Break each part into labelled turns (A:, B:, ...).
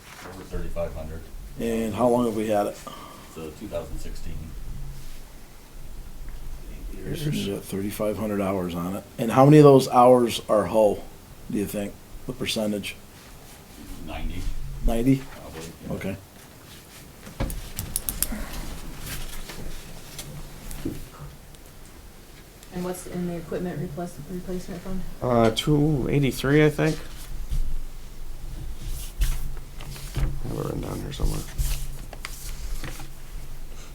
A: thirty-five hundred,
B: And how long have we had it?
A: so two thousand sixteen.
B: There's thirty-five hundred hours on it. And how many of those hours are Hull, do you think? The percentage?
A: Ninety,
B: Ninety?
A: probably. yeah.
B: Okay.
C: And what's in the equipment replace, replacement fund?
D: Uh, two eighty-three, I think. I have it written down here somewhere.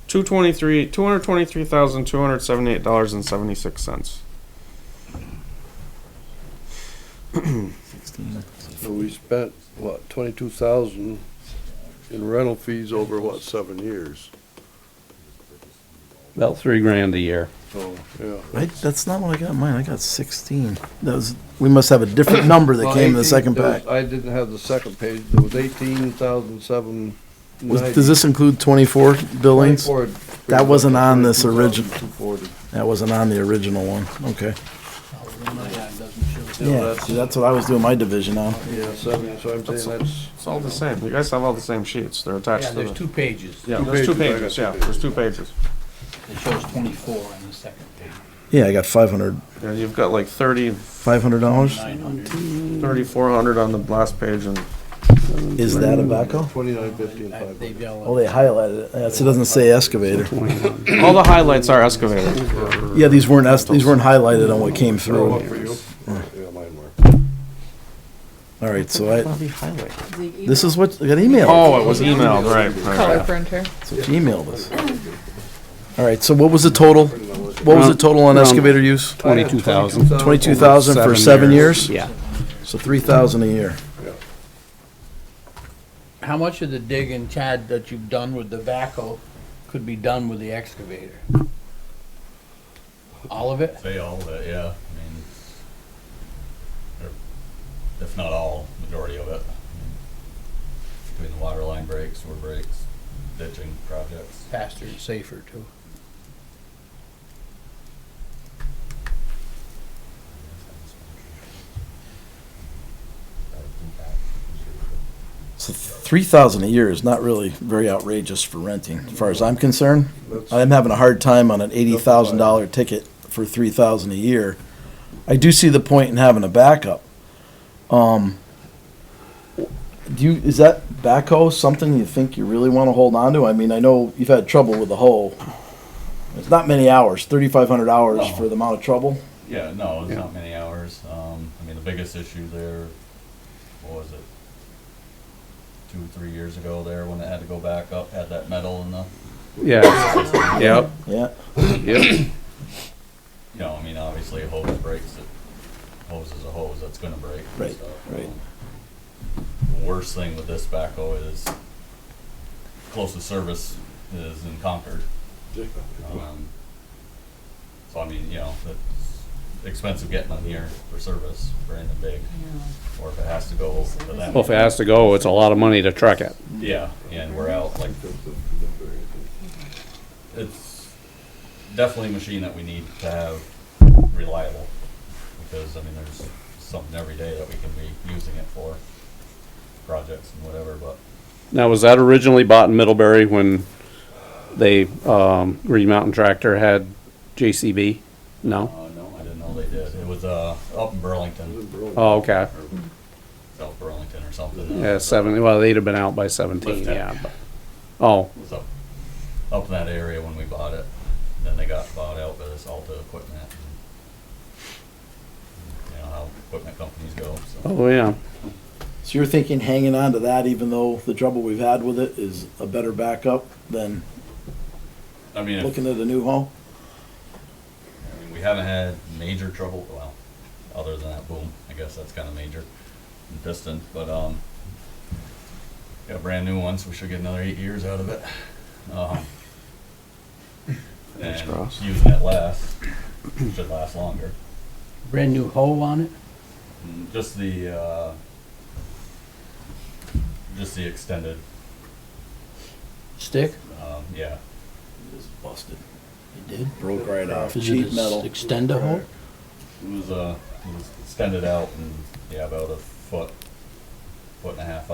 D: Two twenty-three, two hundred twenty-three thousand, two hundred seventy-eight dollars and seventy-six cents.
E: So we spent, what, twenty-two thousand in rental fees over, what, seven years?
F: About three grand a year.
E: So, yeah.
B: Right, that's not what I got in mine. I got sixteen. That was, we must have a different number that came in the second
E: Well, 18
B: pack.
E: I didn't have the second page, it was eighteen thousand seven
B: Was-
E: ninety.
B: Does this include twenty-four billings?
E: 24
B: That wasn't on this origin-
E: 22,240.
B: That wasn't on the original one. Okay.
E: Yeah,
B: Yeah,
E: that's-
B: see, that's what I was doing my division on.
E: Yeah, seven, so I'm saying that's.
D: It's all the same. You guys have all the same sheets. They're attached
G: Yeah,
D: to the.
G: there's two pages.
D: yeah,
E: two
D: there's two
E: pages. I got
D: pages.
E: two
D: Yeah,
E: pages.
D: there's two pages.
G: It shows twenty-four on the second page.
B: Yeah, I got five hundred,
D: Yeah, you've got like thirty,
B: five hundred dollars.
G: Nine hundred.
D: thirty-four hundred on the last page and
B: Is that a backhoe?
E: Twenty-nine fifty and
G: I-
E: five
G: They've
E: hundred.
B: Oh,
G: yellowed.
B: they highlighted it. That's- It doesn't say excavator.
D: all the highlights are excavated.
B: Yeah, these weren't, es- these weren't highlighted on what came through.
E: Throw
B: All
E: up for you. Yeah, mine were.
B: right, so I,
D: Bloody highlight.
B: this is what, Oh, I got emailed.
D: Oh, it was emailed, right, right.
C: Color printer.
B: That's what you emailed us. All right, so what was the total? What was the total on excavator use?
F: Um, Twenty-two thousand.
B: Twenty-two thousand for seven years?
F: Yeah.
B: So three thousand a year.
G: How much of the digging, Chad, that you've done with the backhoe could be done with the excavator? All of it?
A: Say all of it, yeah, I mean, or if not all, majority of it. I mean, Between the water line breaks, sewer breaks, ditching projects.
G: Faster and safer too.
B: So three thousand a year is not really very outrageous for renting, as far as I'm concerned. I'm having a hard time on an eighty thousand dollar ticket for three thousand a year. I do see the point in having a backup. Um, do you, is that backhoe something you think you really want to hold on to? I mean, I know you've had trouble with the hoe. It's not many hours, thirty-five hundred hours
A: No.
B: for the amount of trouble.
A: Yeah, no, it's not many hours. Um, I mean, the biggest issue there, what was it? Two, three years ago there, when it had to go back up, had that metal in the,
F: Yeah. Yep,
B: Yeah.
F: yep.
A: you know, I mean, obviously a hose breaks, it, hose is a hose, that's gonna break. and
B: Right,
A: stuff.
B: right.
A: The Worst thing with this backhoe is closest service is in Concord. Um, So I mean, you know, that's expensive getting on here for service for anything big, or if it has to go over to them.
F: Well, if it has to go, it's a lot of money to truck it.
A: Yeah, and we're out, like, it's definitely a machine that we need to have reliable, because, I mean, there's something every day that we can be using it for, projects and whatever, but
F: Now, was that originally bought in Middlebury when they, um, Green Mountain Tractor had JCB? No?
A: Uh, no, I didn't know they did. It was, uh, up in Burlington,
F: Oh, okay.
A: or South Burlington or something.
F: Yeah, seven, well, they'd have been out by seventeen,
A: Lift it.
F: yeah. but- Oh,
A: It was up, up in that area when we bought it. Then they got bought out by this Alta equipment. and- You know how equipment companies go, so.
F: oh, yeah.
B: So you're thinking hanging on to that, even though the trouble we've had with it is a better backup than
A: I mean, if-
B: looking at a new home?
A: I mean, we haven't had major trouble, well, other than that boom, I guess that's kinda major and piston, but, um, got brand new ones, we should get another eight years out of it. Um,
D: Fingers
A: And
D: crossed.
A: using it less, should last longer.
G: Brand new hoe on it?
A: Mm, Just the, uh, just the extended,
G: Stick?
A: um, yeah,
B: It's busted.
G: It did.
B: Broke right off.
G: Is it
B: Cheap
G: a
B: metal.
G: s- extender hoe?
A: it was, uh, it was extended out and, yeah, about a foot, foot and a half